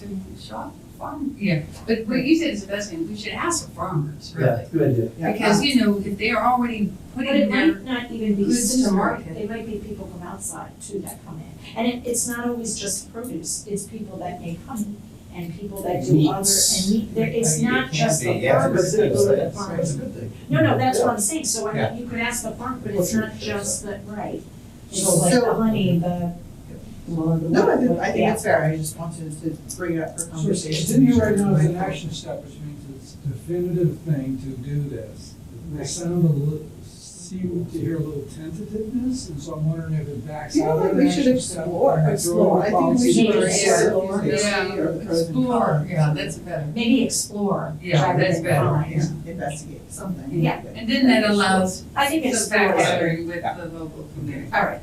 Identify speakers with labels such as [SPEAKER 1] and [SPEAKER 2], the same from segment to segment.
[SPEAKER 1] to shop farm.
[SPEAKER 2] Yeah.
[SPEAKER 1] But what you said is the best thing, we should ask the farmers,
[SPEAKER 3] Yeah,
[SPEAKER 1] really.
[SPEAKER 3] good idea. Yeah.
[SPEAKER 1] Because,
[SPEAKER 4] um,
[SPEAKER 1] you know, if they are already
[SPEAKER 5] But
[SPEAKER 1] putting
[SPEAKER 5] it
[SPEAKER 1] their,
[SPEAKER 5] might not even be
[SPEAKER 1] goods to
[SPEAKER 5] seasonal,
[SPEAKER 1] market.
[SPEAKER 5] it might be people from outside too that come in. And it, it's not always just produce, it's people that may come and people that do other,
[SPEAKER 3] Meats.
[SPEAKER 5] and meat, there, it's
[SPEAKER 2] I mean, it
[SPEAKER 5] not
[SPEAKER 2] can't
[SPEAKER 5] just
[SPEAKER 2] be-
[SPEAKER 5] the
[SPEAKER 3] Yeah,
[SPEAKER 5] farmers
[SPEAKER 3] it's a
[SPEAKER 5] that
[SPEAKER 3] good
[SPEAKER 5] go to
[SPEAKER 3] thing.
[SPEAKER 5] the
[SPEAKER 3] It's
[SPEAKER 5] farm.
[SPEAKER 3] a- It's a good thing.
[SPEAKER 5] No, no, that's what
[SPEAKER 3] Yeah.
[SPEAKER 5] I'm saying, so I
[SPEAKER 6] Yeah.
[SPEAKER 5] mean, you could ask the farm, but it's
[SPEAKER 3] What's
[SPEAKER 5] not
[SPEAKER 3] it?
[SPEAKER 5] just the, right. It's
[SPEAKER 2] So-
[SPEAKER 5] like the honey, the. well, the-
[SPEAKER 2] No, I think, I think
[SPEAKER 5] yeah.
[SPEAKER 2] it's fair, I just wanted to bring it up for
[SPEAKER 7] So
[SPEAKER 2] conversation.
[SPEAKER 7] it's in here right now as an action step, which means it's definitive thing to do this. It may sound a little, seem to hear a little tentativeness, and so I'm wondering if it backs
[SPEAKER 2] Yeah,
[SPEAKER 7] out
[SPEAKER 2] like
[SPEAKER 7] of
[SPEAKER 2] we
[SPEAKER 7] an
[SPEAKER 2] should
[SPEAKER 7] action step.
[SPEAKER 2] explore,
[SPEAKER 7] and throw
[SPEAKER 2] explore,
[SPEAKER 7] it
[SPEAKER 2] I
[SPEAKER 7] in
[SPEAKER 2] think we
[SPEAKER 7] policy.
[SPEAKER 2] should
[SPEAKER 5] Maybe
[SPEAKER 2] explore.
[SPEAKER 5] explore.
[SPEAKER 2] or the
[SPEAKER 1] yeah,
[SPEAKER 2] pros and cons.
[SPEAKER 1] explore, yeah, that's better.
[SPEAKER 5] Maybe explore.
[SPEAKER 2] Yeah,
[SPEAKER 5] rather
[SPEAKER 1] that's
[SPEAKER 5] than
[SPEAKER 1] better,
[SPEAKER 5] find.
[SPEAKER 1] yeah.
[SPEAKER 2] Investigate something.
[SPEAKER 5] Yeah.
[SPEAKER 1] And then that allows
[SPEAKER 5] I think
[SPEAKER 1] some
[SPEAKER 5] explore,
[SPEAKER 1] backgathering with the local community.
[SPEAKER 5] All right.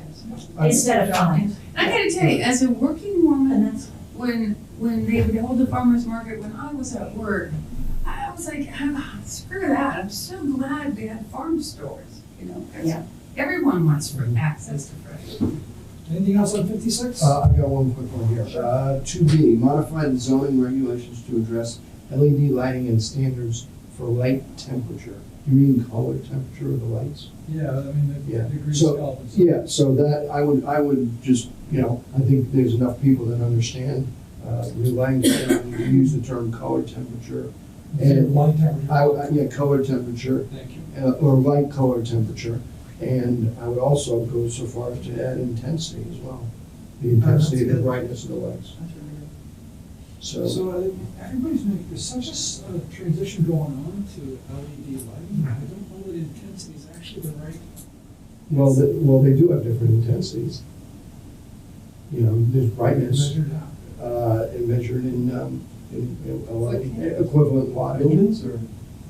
[SPEAKER 3] I-
[SPEAKER 5] instead of find,
[SPEAKER 1] I gotta tell you, as a working woman,
[SPEAKER 5] and that's,
[SPEAKER 1] when when they would hold the farmers market when I was at work, I was like, "Ah, screw that. I'm so glad we had farm stores, you know, 'cause
[SPEAKER 5] Yeah.
[SPEAKER 1] everyone wants fr- access to fresh. food.
[SPEAKER 7] Anything else on fifty-six?
[SPEAKER 6] Uh, I've got one quick one here. Uh, two B, modify the zoning regulations to address LED lighting and standards for light temperature. You mean color temperature of the lights?
[SPEAKER 7] Yeah, I mean, the
[SPEAKER 6] Yeah.
[SPEAKER 7] degree
[SPEAKER 6] So-
[SPEAKER 7] scale. and stuff.
[SPEAKER 6] Yeah, so that, I would, I would just, you know, I think there's enough people that understand, uh, new language, and we use the term color temperature. And
[SPEAKER 7] Light temperature.
[SPEAKER 6] I, would- yeah, color temperature,
[SPEAKER 7] Thank you.
[SPEAKER 6] uh, or light color temperature. And I would also go so far as to add intensity as well, the intensity, the
[SPEAKER 2] good.
[SPEAKER 6] brightness of the lights. So,
[SPEAKER 7] So uh, everybody's making, there's such a s- uh, transition going on to LED lighting. I don't know that intensity is actually the right.
[SPEAKER 6] well, the- well, they do have different intensities. You know, there's brightness,
[SPEAKER 7] Measured out.
[SPEAKER 6] uh, and measured in, um, in in a lot-
[SPEAKER 1] Foot candles.
[SPEAKER 6] equivalent watt.
[SPEAKER 3] Lumens or?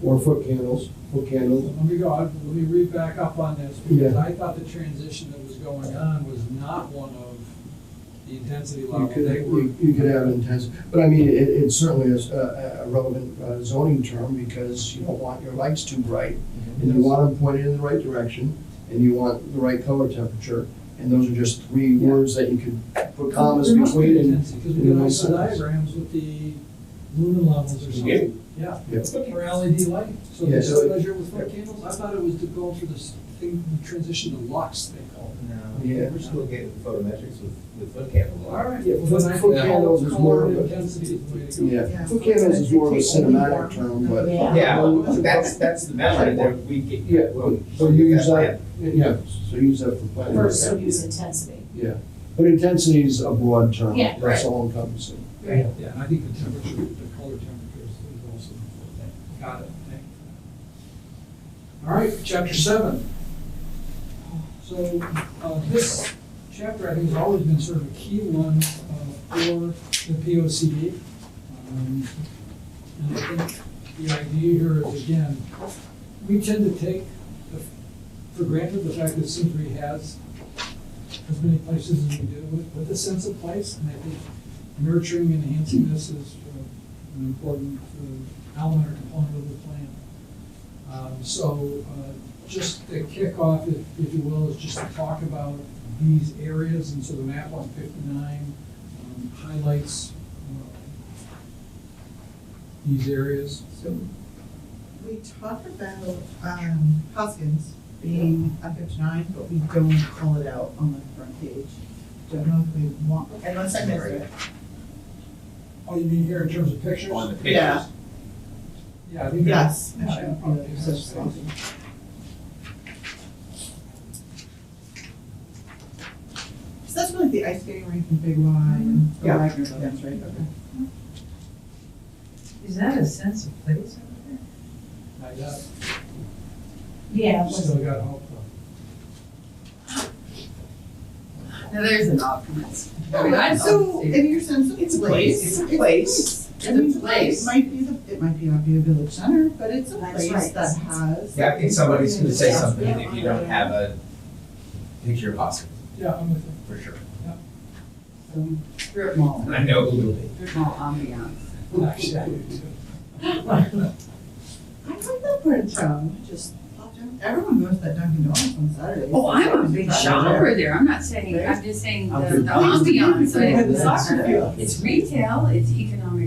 [SPEAKER 6] Or foot candles, foot
[SPEAKER 7] So
[SPEAKER 6] candles.
[SPEAKER 7] Let me go, I- let me read back up on this, because I thought the transition that was going on was not one of the intensity
[SPEAKER 6] You
[SPEAKER 7] level.
[SPEAKER 6] could,
[SPEAKER 7] They were,
[SPEAKER 6] you you could have intense, but I mean, it, it certainly is a, a relevant uh, zoning term because you don't want your lights too bright. And you want them pointed in the right direction, and you want the right color temperature, and those are just three
[SPEAKER 7] Yeah.
[SPEAKER 6] words that you could put commas
[SPEAKER 7] There must be
[SPEAKER 6] between and.
[SPEAKER 7] intensity, Because we
[SPEAKER 6] and
[SPEAKER 7] got
[SPEAKER 6] those
[SPEAKER 7] ISO
[SPEAKER 6] signs.
[SPEAKER 7] diagrams with the lumen levels or
[SPEAKER 3] You
[SPEAKER 7] something. Yeah.
[SPEAKER 6] Yeah.
[SPEAKER 7] For LED lighting, so
[SPEAKER 6] Yeah,
[SPEAKER 7] they
[SPEAKER 6] so
[SPEAKER 7] just
[SPEAKER 6] it-
[SPEAKER 7] measure with foot candles? I thought it was to go through this thing, the transition to lux, they call it.
[SPEAKER 3] No, we're still getting photometrics with, with foot candles.
[SPEAKER 7] All right.
[SPEAKER 6] Yeah,
[SPEAKER 7] Well, then I
[SPEAKER 6] foot
[SPEAKER 7] think
[SPEAKER 6] candles is more
[SPEAKER 7] color
[SPEAKER 6] of a-
[SPEAKER 7] Intensity is the way to go.
[SPEAKER 6] Yeah, foot candles is more of a cinematic term, but.
[SPEAKER 5] Yeah.
[SPEAKER 3] Yeah, well, that's, that's the measure that we get.
[SPEAKER 6] Yeah, well, so you use that, yeah, so use that for planning.
[SPEAKER 5] first, so use intensity.
[SPEAKER 6] Yeah, but intensity is a broad term,
[SPEAKER 5] Yeah.
[SPEAKER 6] that's all encompassing.
[SPEAKER 5] Right.
[SPEAKER 7] Yeah, and I think the temperature, the color temperature is is also important. Got it, thank you. All right, chapter seven. So, uh, this chapter, I think, has always been sort of a key one, uh, for the P O C D. Um, And I think the idea here is, again, we tend to take the- for granted the fact that Simsbury has as many places as we do, with, with a sense of place, and I think nurturing and enhancing this is uh, an important uh, element or component of the plan. Um, So uh, just the kickoff, if if you will, is just to talk about these areas, and so the map on 59 um, highlights uh, these areas.
[SPEAKER 4] So we talk about um, Hoskins being on fifty-nine, but we don't call it out on the front page. Don't know if we want, unless I missed it.
[SPEAKER 7] Oh, you mean here in terms of pictures?
[SPEAKER 3] On the pictures.
[SPEAKER 4] Yeah.
[SPEAKER 7] Yeah, I think that's.
[SPEAKER 4] Yes. it should be there, so it's something. So that's really the ice skating rink and Big Y and the
[SPEAKER 2] Yeah.
[SPEAKER 4] Wagner buildings, right? Okay.
[SPEAKER 1] Is that a sense of place over
[SPEAKER 7] I got-
[SPEAKER 5] Yeah, it was-
[SPEAKER 7] Still got hope. though.
[SPEAKER 1] there? Now, there's an optimist. Oh, I mean, I'd
[SPEAKER 4] Right, So,
[SPEAKER 1] love to see
[SPEAKER 4] in your sense of
[SPEAKER 3] It's a
[SPEAKER 4] place.
[SPEAKER 3] place.
[SPEAKER 4] It's a place.
[SPEAKER 1] It's
[SPEAKER 4] I
[SPEAKER 1] a
[SPEAKER 4] mean, it's
[SPEAKER 1] place.
[SPEAKER 4] It might be, the- it might be not be a village center, but it's a
[SPEAKER 5] That's
[SPEAKER 4] place
[SPEAKER 5] right.
[SPEAKER 4] that has.
[SPEAKER 3] Yeah, I think somebody's gonna say something if you don't have a picture of Oscar,
[SPEAKER 7] Yeah, I'm with you.
[SPEAKER 3] for sure.
[SPEAKER 1] some strip mall,
[SPEAKER 3] And I know a little bit.
[SPEAKER 1] strip mall ambiance.
[SPEAKER 7] Actually, I do too.
[SPEAKER 4] I like that part of town, I just popped Everyone goes to that Dunkin' Donuts on Saturday.
[SPEAKER 1] Oh, I'm a big shopper there, I'm not saying, I'm just saying the the ambiance,
[SPEAKER 4] Yeah,
[SPEAKER 1] of
[SPEAKER 4] the
[SPEAKER 1] it.
[SPEAKER 4] soccer field.
[SPEAKER 1] it's retail, it's economic